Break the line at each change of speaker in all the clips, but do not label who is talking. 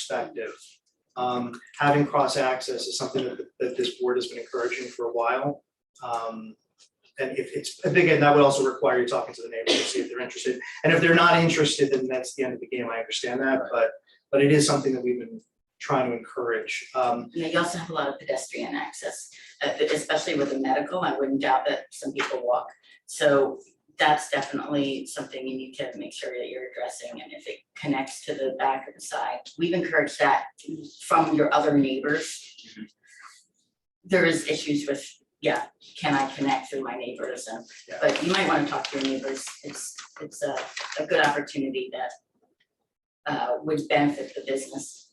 perspective. Um, having cross-access is something that, that this board has been encouraging for a while. Um, and if it's, and again, that would also require you talking to the neighbors to see if they're interested. And if they're not interested, then that's the end of the game. I understand that, but, but it is something that we've been trying to encourage. Um,
you know, you also have a lot of pedestrian access, uh, especially with the medical, I wouldn't doubt that some people walk. So that's definitely something you need to make sure that you're addressing, and if it connects to the back or the side, we've encouraged that from your other neighbors. There is issues with, yeah, can I connect through my neighbors, and,
Yeah.
but you might wanna talk to your neighbors, it's, it's a, a good opportunity that uh, would benefit the business.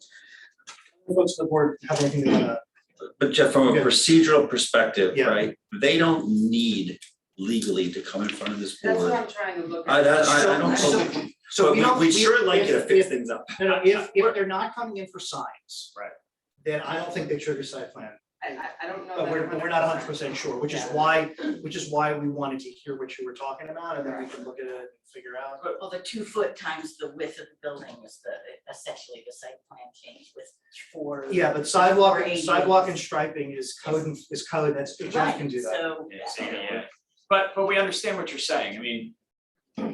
folks on the board have anything to, uh,
But Jeff, from a
Yeah.
procedural perspective,
Yeah.
right, they don't need legally to come in front of this
That's what
board.
I'm trying to look at.
I, that- I, I
So-
don't,
so-
believe-
so
but
we don't.
we, we
we-
sure like
if-
you to
if-
fix things up.
No, no, if, if they're not coming in for signs.
Right.
Then I don't think they trigger site plan,
I, I- I don't know that.
but we're, but we're not hundred
100%.
percent sure, which is
Yeah.
why, which is why we wanted to hear what you were talking about, and then we can look at it and figure out.
Well, the two foot times the width of the building was the, essentially the site plan change with four.
Yeah, but sidewalk,
Or ADUs.
sidewalk and striping is code, and- is code, that's, Jeff can do that.
Yeah, so, yeah. But, but we understand what you're saying, I mean,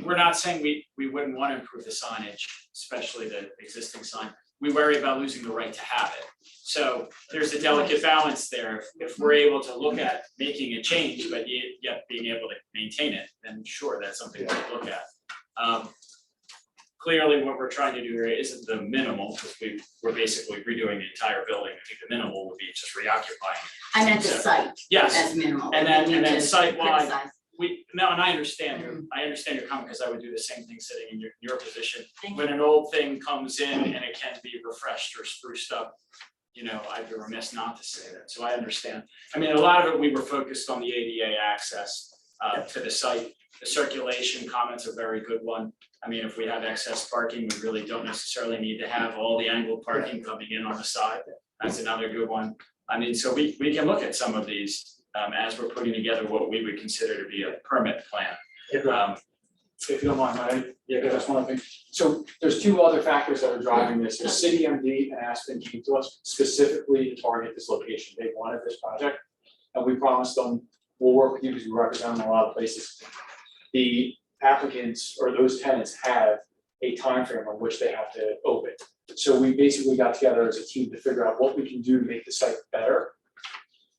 we're not saying we, we wouldn't want to improve the signage, especially the existing sign. We worry about losing the right to have it, so there's a delicate balance there, If- if we're able to look at making a change, but yet, yet being able to maintain it, then sure, that's something to look at. Um, Clearly, what we're trying to do here isn't the minimal, because we, we're basically redoing the entire building, I think the minimal would be just reoccupying.
I meant the site
Yes,
as minimal.
And then-
we need
and then
to
site-wide.
criticize.
We, no, and I understand your, I understand your comment, because I would do the same thing sitting in your, your position.
Thank
When an old thing comes in and it can be refreshed or spruced up, you know, I'd be remiss not to say that, so I understand. I mean, a lot of it, we were focused on the ADA access uh to the site. The circulation comment's a very good one. I mean, if we have excess parking, we really don't necessarily need to have all the angled parking coming in on the side. That's another good one. I mean, so we, we can look at some of these, um, as we're putting together what we would consider to be a permit plan. Um,
if you don't mind, I, yeah, that's one thing. So there's two other factors that are driving this. So City MD and Aspen came to us specifically to target this location. They wanted this project. And we promised them, we'll work with you because we represent them in a lot of places. The applicants or those tenants have a time frame on which they have to open. So we basically got together as a team to figure out what we can do to make the site better,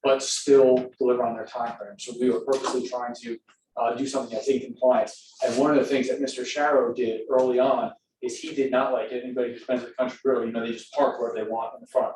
but still deliver on their time frame. So we were purposely trying to uh, do something that's in compliance. And one of the things that Mr. Sharrow did early on is he did not like it. Anybody who's been to the country grill, you know, they just park wherever they want in the front.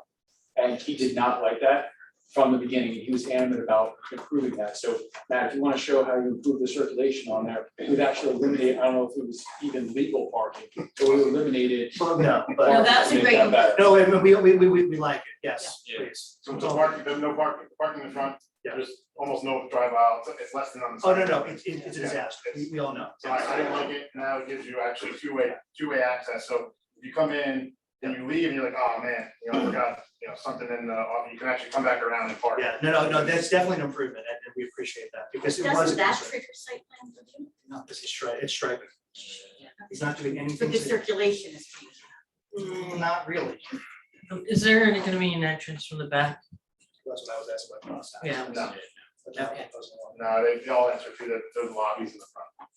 And he did not like that from the beginning, and he was adamant about improving that. So Matt, if you want to show how you improve the circulation on there, we've actually eliminated, I don't know if it was even legal parking, but we eliminated.
Well, no,
No,
but,
that's a
Make
great-
that better.
no, and we, we, we, we, we like it, yes,
Yeah.
please. Oh,
So it's a parking, there's no parking, parking in front,
Yeah.
there's almost no drive out, it's- it's less than on the
Oh,
side.
no, no, it's, it's it's a disaster, we, we all know.
So I, I didn't like it, now it gives you actually two-way, two-way access, so if you come in and you leave and you're like, oh man, you know, I forgot, you know, something in the, off," you can actually come back around and park.
Yeah, no, no, no, that's definitely an improvement, and and we appreciate that, because it was a
Doesn't that
concern.
trigger site plan review?
No, this is stri- it's striping, he's not doing
But
anything
the
to,
circulation is changing.
Mm, not really,
Is there gonna be an entrance from the back?
that's what I was asking about last time.
Yeah.
No,
But that one wasn't one.
no, they, they all answer through the, those lobbies in the front.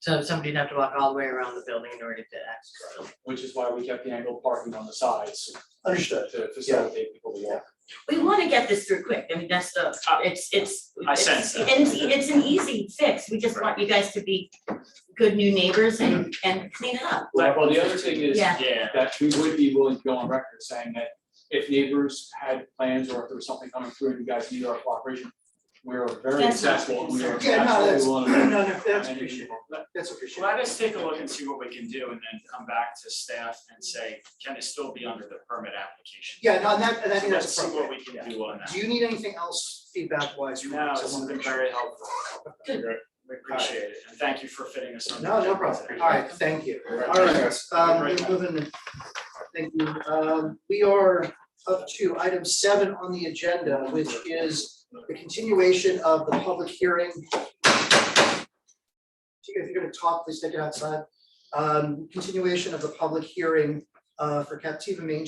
So somebody'd have to walk all the way around the building in order to access the building.
Which is why we kept the angled parking on the sides
Understood.
to facilitate people to walk.
We wanna get this through quick, I mean, that's the, it's, it's.
Uh, I sense that.
It's, and it's an easy fix, we just want you guys to be good new neighbors and, and clean it up.
Well, the other thing is,
Yeah.
yeah,
that we would be willing to go on record saying that if neighbors had plans or if there was something coming through and you guys need our cooperation, we're very
That's not
accessible, and we are
Yeah, no, that's,
absolutely willing to.
no, no, that's
And-
appreciated, that's appreciated.
let us take a look and see what we can do, and then come back to staff and say, can it still be under the permit application?
Yeah, no, and that, and I think
Let's
that's
see what
appropriate.
we can do on that.
Do you need anything else feedback wise?
No, it's been very helpful, we appreciate it, and thank you for fitting us on.
No, no problem, all right, thank you. All right, um, we're moving, thank you, um, we are up to item seven on the agenda, which is the continuation of the public hearing. If you're gonna talk, please take it outside. Um, continuation of the public hearing uh, for Captiva Main